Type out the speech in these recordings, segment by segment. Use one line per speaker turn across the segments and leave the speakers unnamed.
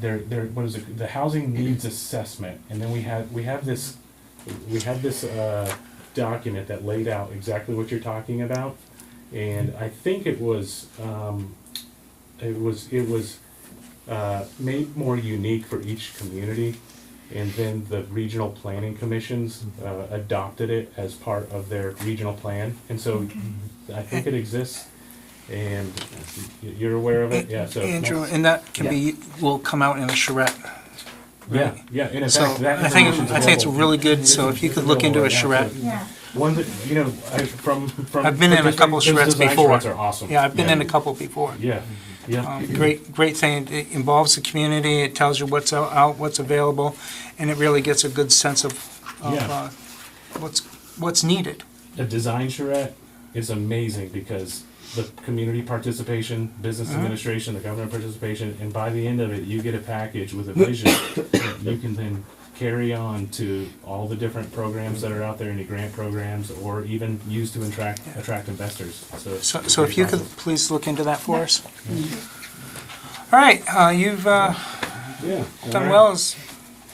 there, there, what is it, the housing needs assessment, and then we have, we have this, we have this, uh, document that laid out exactly what you're talking about, and I think it was, um, it was, it was, uh, made more unique for each community, and then the regional planning commissions, uh, adopted it as part of their regional plan, and so I think it exists, and y- you're aware of it, yeah, so.
Andrew, and that can be, will come out in a charrette.
Yeah, yeah, and in
So
fact, that
I think,
information's
I think it's
available.
really good, so if you could look into a charrette.
Yeah.
One that, you know, I, from, from.
I've been in a
those-
couple
those
charrettes
design
before.
charrettes are awesome.
Yeah, I've been in a couple before.
Yeah, yeah.
Um, Great, great thing, it involves the community, it tells you what's out- out, what's available, and it really gets a good sense of, of
Yeah.
uh, what's, what's needed.
A design charrette is amazing because the community participation, business
Uh-huh.
administration, the government participation, and by the end of it, you get a package with a vision that you can then carry on to all the different programs that are out there, any grant programs, or even use to attract, attract investors, so.
So,
it's a
so
great
if you could
process.
please look into that for us. All right, uh, you've uh,
Yeah.
done well, as-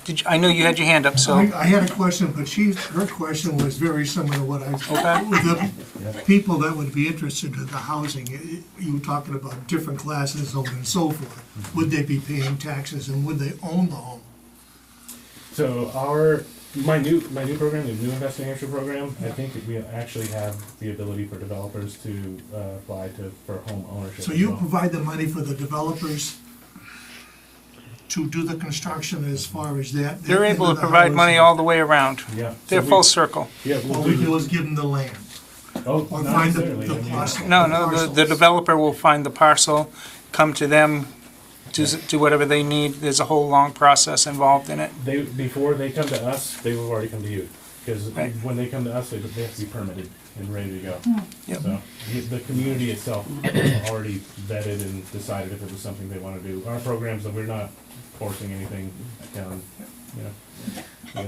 did, you- I know you had your hand up, so.
I I had a question, but she, her question was very similar to what I,
Okay.
with the people that would be interested in the housing, i- you were talking about different classes of and so forth. Would they be paying taxes and would they own the home?
So our my new my new program, the new Invest in Hampshire program, I think that we actually have the ability for developers to uh, apply to for home ownership.
So
as
you
well.
provide the money for the developers to do the construction as far as that?
They're
that
able to
end of the
provide money
housing?
all the way around.
yeah. so
They're
we-
full circle.
Yeah, we'll
All we do
do.
is give them the land,
Oh,
or
not
find the,
necessarily, I
the
mean,
parcel.
No, no, the- the
parcels.
developer will find the parcel, come to them, do s- do whatever they need. There's a whole long process involved in it.
They before they come to us, they will already come to you because
Right.
when they come to us, they, they have to be permitted and ready to go.
Hmm.
Yep.
So the- the community itself already vetted and decided if it was something they want to do. Our programs, we're not forcing anything down. You know. Yeah.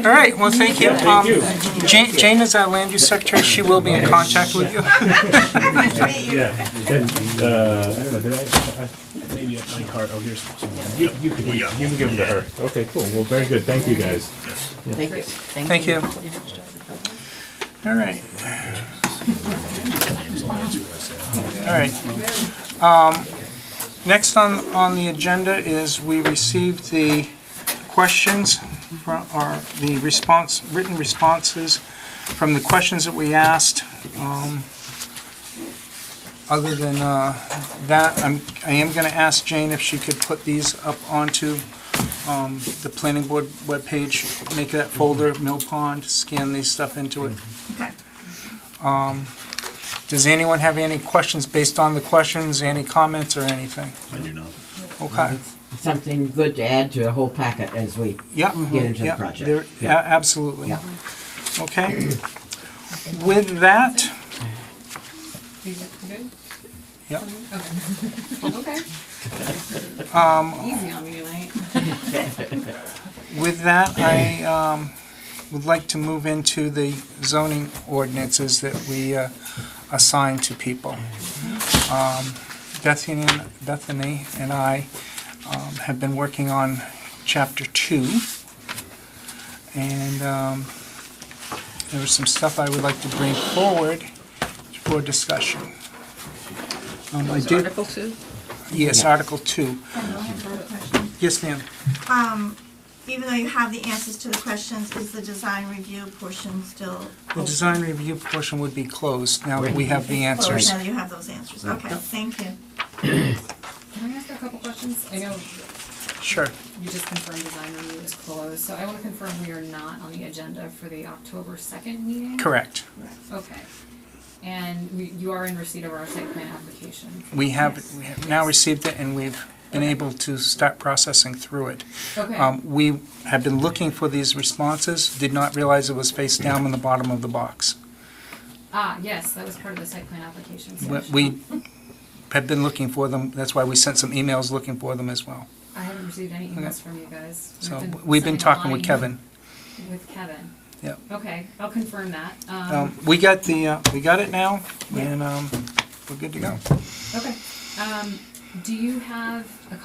All right, well, thank you.
Yeah, thank you.
Um, Jane Jane is our land use secretary. She will be in contact with you.
Yeah. And, uh, I don't know, did I, I, maybe at my card, oh, here's some. You, you can, you can give them to her. Okay, cool. Well, very good. Thank you, guys.
Thank you.
Thank you. All right. All right. Um, Next on, on the agenda is we received the questions from, or the response, written responses from the questions that we asked. Um, Other than uh, that, I'm, I am going to ask Jane if she could put these up onto um, the planning board webpage, make that folder,
Mm-hmm.
Mill Pond, scan these stuff into it. Um, Does anyone have any questions based on the questions, any comments or anything? I do not. Okay,
Something good to add to the whole packet as we,
yeah.
Get into the
yeah,
project.
there- a-
Yeah.
Absolutely.
Yeah.
Okay. With that, yep.
Okay.
Um,
Easy on me tonight.
With that, I um, would like to move into the zoning ordinances that we uh, assign to people. Um, Bethany Bethany and I um, have been working on Chapter 2, and um, there was some stuff I would like to bring forward for discussion. Um, I did-
Article two?
Yes, Article 2. Yes, ma'am.
Um, Even though you have the answers to the questions, is the design review portion still?
The design review portion would be closed now that we have the
closed
answers.
Now that you have those answers, okay, thank you.
Can I ask a couple questions? I know
Sure.
you just confirmed design review is closed, so I want to confirm we are not on the agenda for the October second meeting?
Correct.
Okay. And we, you are in receipt of our site plan application?
We have, we have now received it and we've been able to start processing through it.
Okay,
Um, we have been looking for these responses, did not realize it was face down in the bottom of the box.
ah, yes, that was part of the site plan application, so.
We-
I should-
We have been looking for them, that's why we sent some emails looking for them as well.
I haven't received any emails from you guys.
So we've been talking with Kevin.
sending a line With Kevin?
Yep.
Okay, I'll confirm that. Um,
Um, we got the, uh, we got it now and, um, we're good to go.
okay. Um, do you have a